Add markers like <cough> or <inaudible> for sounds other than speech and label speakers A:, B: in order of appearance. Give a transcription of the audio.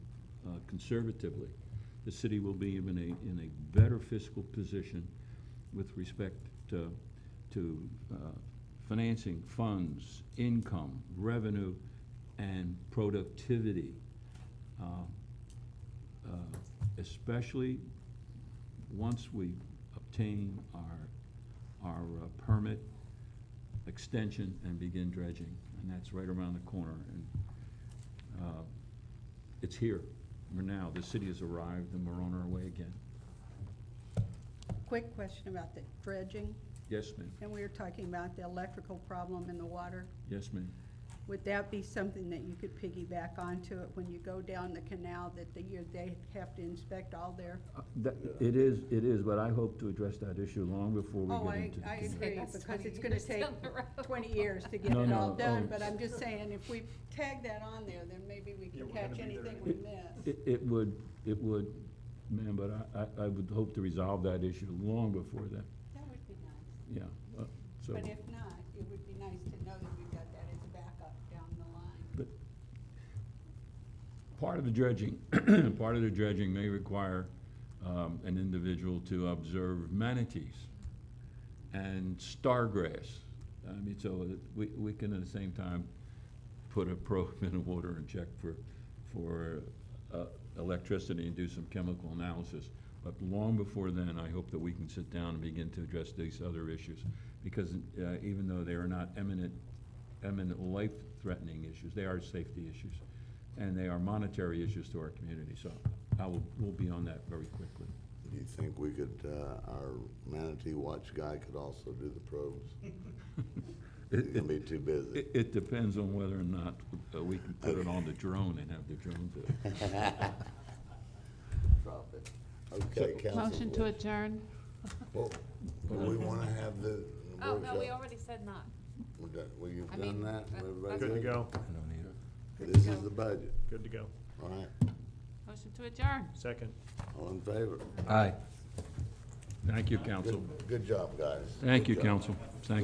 A: uh, conservatively, the city will be in a, in a better fiscal position with respect to, to uh, financing, funds, income, revenue, and productivity. Uh, uh, Especially once we obtain our, our uh, permit extension and begin dredging. And that's right around the corner. And uh, it's here. We're now, the city has arrived and we're on our way again.
B: Quick question about the dredging,
A: Yes, ma'am.
B: and we were talking about the electrical problem in the water.
A: Yes, ma'am.
B: Would that be something that you could piggyback onto it when you go down the canal that the, you- they have to inspect all their?
A: Uh, that- It is, it is, but I hope to address that issue long before
B: Oh,
A: we get
B: I,
A: into the.
B: I
A: committee.
B: agree,
C: That's
B: because
C: 20
B: it's gonna
C: years
B: take
C: down the road.
B: twenty years to get
A: No,
B: it
A: no,
B: all done,
A: oh.
B: but I'm just saying, if we tag that on there, then maybe we
D: Yeah,
B: can
D: we're gonna
B: catch
D: be there
B: anything we
D: anyway.
B: miss.
A: It, it would, it would, ma'am, but I- I, I would hope to resolve that issue long before then,
B: That would be nice,
A: yeah. uh, So,
B: but if not, it would be nice to know that we've got that as a backup down the line.
A: but part of the dredging, <clears throat> part of the dredging may require um, an individual to observe manatees and stargrass. I mean, so that we, we can at the same time put a probe <laughs> in the water and check for, for uh, electricity and do some chemical analysis. But long before then, I hope that we can sit down and begin to address these other issues. Because uh, even though they are not eminent, eminent life-threatening issues, they are safety issues. And they are monetary issues to our community, so I will, we'll be on that very quickly.
E: Do you think we could, uh, our manatee watch guy could also do the probes? He's gonna be too busy.
A: <laughs> It, it depends on whether or not uh, we can put it on the drone and have the drone do it.
E: <laughs> Drop it. Okay, council.
F: Motion to adjourn?
E: Well, well, we wanna have the
C: Oh, no, we
E: workshop.
C: already said not.
E: We're done- Well, you've
C: I
E: done
C: mean, uh,
E: that?
C: that-
E: Everybody
D: Good to go,
E: This is the budget.
D: good to go.
E: All right,
F: Motion to adjourn.
D: Second.
E: all in favor?
A: Aye. Thank you, council.
E: Good job, guys.
A: Thank you,
E: Good job.
A: council. Thank